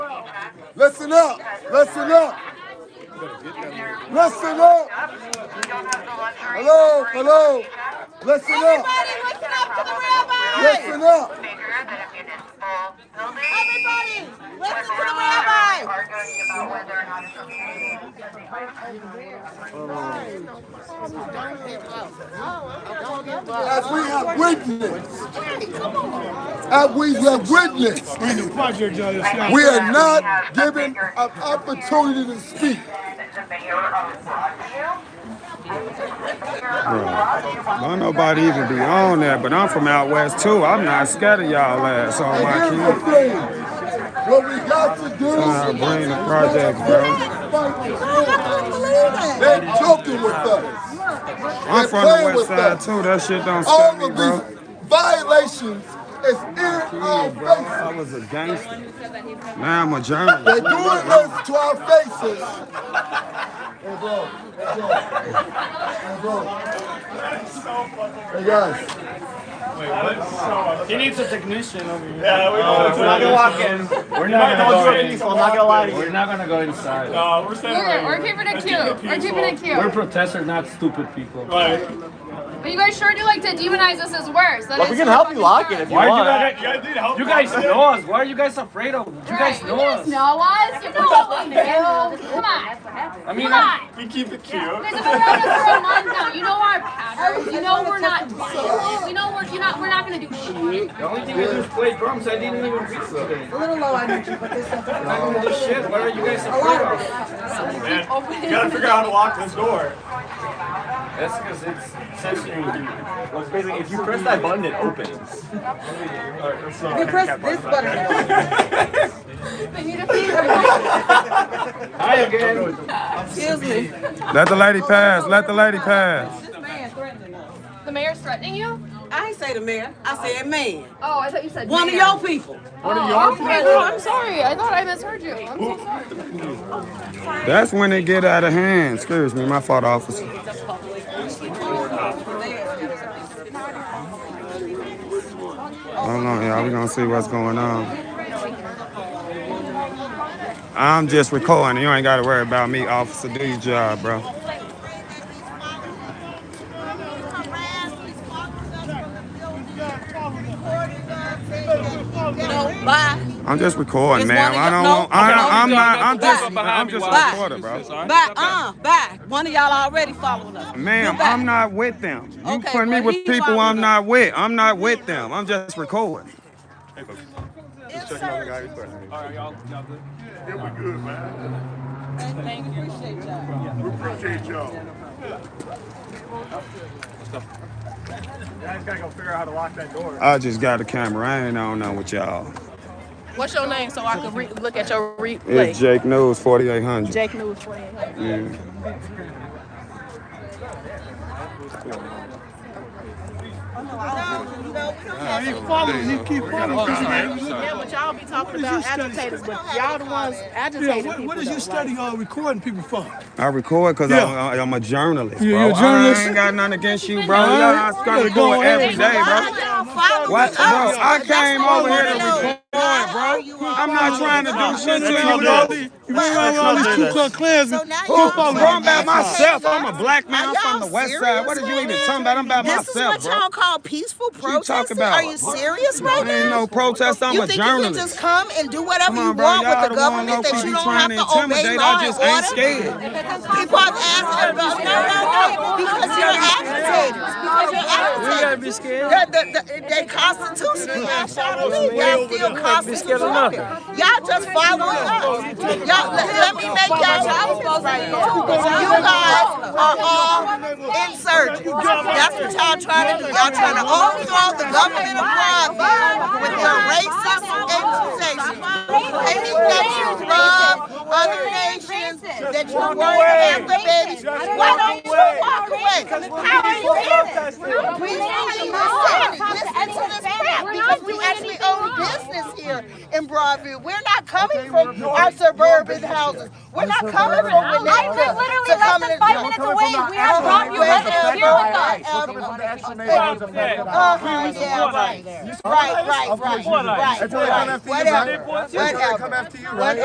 Listen up. Listen up. Listen up. Hello. Hello. Listen up. Everybody listen up to the rabbi! Listen up. Everybody listen to the rabbi! As we have witnessed. As we have witnessed. We are not given an opportunity to speak. Don't nobody even be on that, but I'm from out west too. I'm not scared of y'all ass on And my here's kids. the thing. What we got to do. Trying to bring the project, bro. They're joking with us. I'm from the west side too. That shit don't scare All me, of bro. these violations is in our Bro, I faces. was a gangster. Now I'm a They're journalist. doing this to our faces. Hey, bro. Hey, bro. Hey, bro. Hey, guys. He needs a technician over here. Yeah, we If Oh, We're not gonna walk in. We're not gonna Don't go do in. anything, I'm not gonna lie to We're you. We're not gonna go inside. Uh, we're standing We're, right we're here. keeping it cute. Let's keep it We're keeping it We're cute. protesters, not stupid people. Right. But you guys sure do like to demonize us as worse. That But is we can so help you fucking lock dumb. it if you Why you want. guys, you guys need help? You guys know us. Why are you guys afraid of? You Right, guys you know guys us. know us. You know what we do. Come on. I mean, Come on. We keep it cute. You guys have been around us for a month now. You know our patterns. You know we're not violent. We know we're you're not we're not gonna do shit. the only thing I do is play drums. I didn't even reach today. A little low energy, but this is a Holy shit! What are you guys afraid of? Man, you gotta figure out how to lock this door. That's because it's censoring you. Well, it's basically, if you press that button, it opens. You press this button. They need a fever. Hi again. Excuse me. Let the lady pass. Let the lady pass. This man threatening us. The mayor's threatening you? I ain't say the mayor. I said man. Oh, I thought you said One of mayor. your people. One of your okay, no, I'm sorry. I thought I misheard you. I'm so sorry. That's when it get out of hand. Excuse me, my fault, officer. Hold on, y'all. We gonna see what's going on. I'm just recording. You ain't gotta worry about me, officer. Do your job, bro. You know, bye. I'm just recording, It's one ma'am. of I don't y'all- want. I, no, no, I'm you not. don't. I'm Back. just. I'm just a Back. recorder, bro. Bye. Uh, bye. One of y'all already following us. Ma'am, You back. I'm not with them. You Okay, put me well, with he people I'm following not with. I'm not with them. I'm just recording. Thank you. Appreciate y'all. You guys gotta go figure out how to lock that door. I just got the camera. I ain't on now with y'all. What's your name so I could re- look at your replay? It's Jake News 4800. Jake News 28. Yeah, but y'all be talking about agitators, but y'all the ones agitating people. What is you studying all recording people for? I record because Yeah. I'm, I'm a journalist, bro. Yeah, you're a journalist. I ain't got nothing against you, bro. Huh? Y'all, I start Gotta go record on every everything. day, bro. Why y'all following What, us? bro? I came what over I here to wanna know. record, bro. I'm not trying to do shit to you, all bro. these, you bring around all these Ku Klux Klans. So now Who y'all follow Bro, I'm them? by myself. I'm a black man. Are I'm from y'all the west side. What did you serious even right talking about? I'm by This is myself, what bro. y'all call peaceful you talking protesting? about? Are you serious right I ain't now? no protest. I'm you a think you can just journalist. come and do whatever Come on, you bro. want with Y'all the the one government low that key you don't have trying to to obey intimidate. law I and just ain't order? scared. People have asked everybody, no, no, no, because you're agitators, because you're agitators. be scared. The, the, the, they constitutionally y'all trying to leave. Y'all still constitutionally. Y'all just following us. Y'all, let, let me make y'all relevant right now. You guys are all insurgents. That's what y'all trying to do. Y'all trying to overthrow the government of Broadview with your racist accusations. Hating that you love other nations, that you worry about the babies. Why don't you walk away? How are you here? We need you to listen to this crap because we actually own business here in Broadview. We're not coming from our suburban houses. We're not coming from Winnetka We're to literally less come than and- five No, minutes coming away. from We our have Broadview suburban residents houses. here with us. Our suburban- Uh-huh, yeah, right. Right, right, right, right, right. Whatever, whatever.